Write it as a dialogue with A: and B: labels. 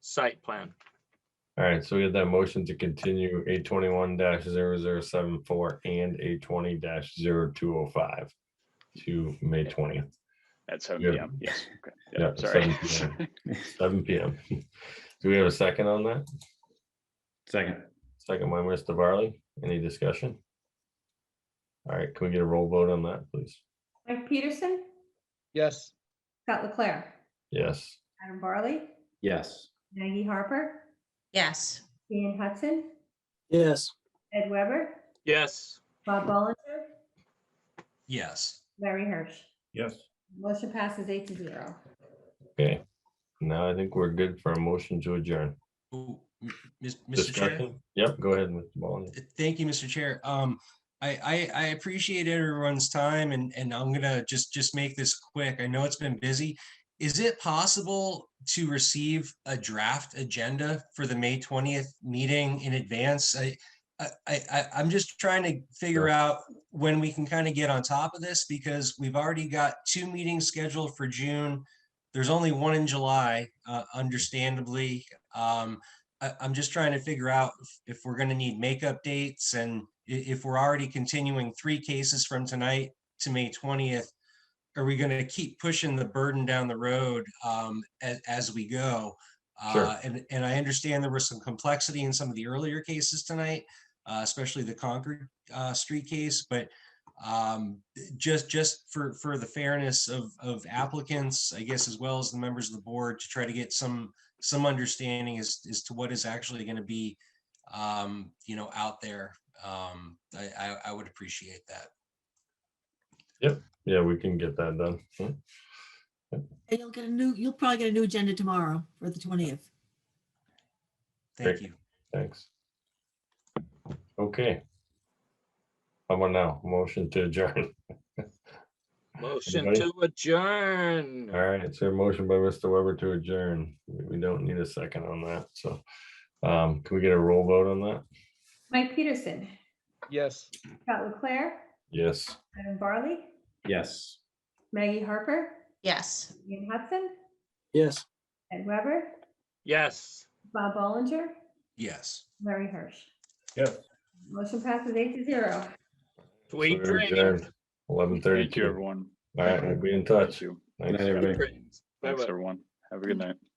A: site plan.
B: All right, so we have that motion to continue eight twenty-one 74 and eight twenty 205 to May twentieth.
C: At seven
B: Yeah.
C: PM, yes. okay,
B: Yeah,
C: Yeah, sorry.
B: 7 Seven P M. Do we have a second on that?
D: Second,
B: Second by Mr. Varley. Any discussion? All right, can we get a roll vote on that, please?
E: Mike Peterson,
F: yes,
E: Scott Leclair,
B: Yes.
E: Adam Barley,
D: yes.
E: Maggie Harper,
G: yes.
E: Ian Hudson,
H: yes.
E: Ed Weber,
A: Yes.
E: Bob Bollinger,
I: yes.
E: Larry Hirsch.
D: Yes.
E: Motion passes eight to zero.
B: Okay. Now I think we're good for a motion to adjourn.
I: Ooh, m- Mis- Mr. Chair,
B: Discussion? Yep, go ahead, Mr. Ballin.
I: th- thank you, Mr. Chair. Um, I, I, I appreciate everyone's time and, and I'm gonna just, just make this quick. I know it's been busy. Is it possible to receive a draft agenda for the May twentieth meeting in advance? I, I, I, I- I'm just trying to figure
B: Sure.
I: out when we can kind of get on top of this because we've already got two meetings scheduled for June. There's only one in July, uh, understandably. Um, I, I'm just trying to figure out if- if we're gonna need makeup dates and i- if we're already continuing three cases from tonight to May twentieth, are we gonna keep pushing the burden down the road, um, as, as we go?
B: Sure.
I: Uh, and, and I understand there was some complexity in some of the earlier cases tonight, uh, especially the Concord, uh, street case, but um, just, just for, for the fairness of, of applicants, I guess, as well as the members of the board to try to get some, some understanding as, as to what is actually going to be, um, you know, out there. Um, I, I, I would appreciate that.
B: Yeah, we can get that done. Hmm.
J: And you'll get a new, you'll probably get a new agenda tomorrow for the twentieth.
I: Thank
B: Great.
I: you.
B: Thanks. Okay. How about now? Motion to adjourn.
A: Motion
B: Anybody?
A: to adjourn.
B: All right, it's a motion by Mr. Weber to adjourn. We we don't need a second on that, so. Um, can we get a roll vote on that?
E: Mike Peterson,
F: yes.
E: Scott Leclair,
B: Yes.
E: Adam Barley,
D: Yes.
E: Maggie Harper,
G: Yes.
E: Ian Hudson,
H: Yes.
E: Ed Weber,
A: Yes.
E: Bob Bollinger,
I: Yes.
E: Larry Hirsch.
D: Yes.
E: Motion passes eight to zero.
A: Sweet dreams.
B: Eleven
C: Thank you,
B: thirty-two.
C: everyone.
B: All right, we'll be in
C: Thank
B: touch.
C: you.
B: Thanks.
D: Everybody.
A: Dreams.
C: Thanks,
A: Bye-bye.
C: everyone. Have a good night.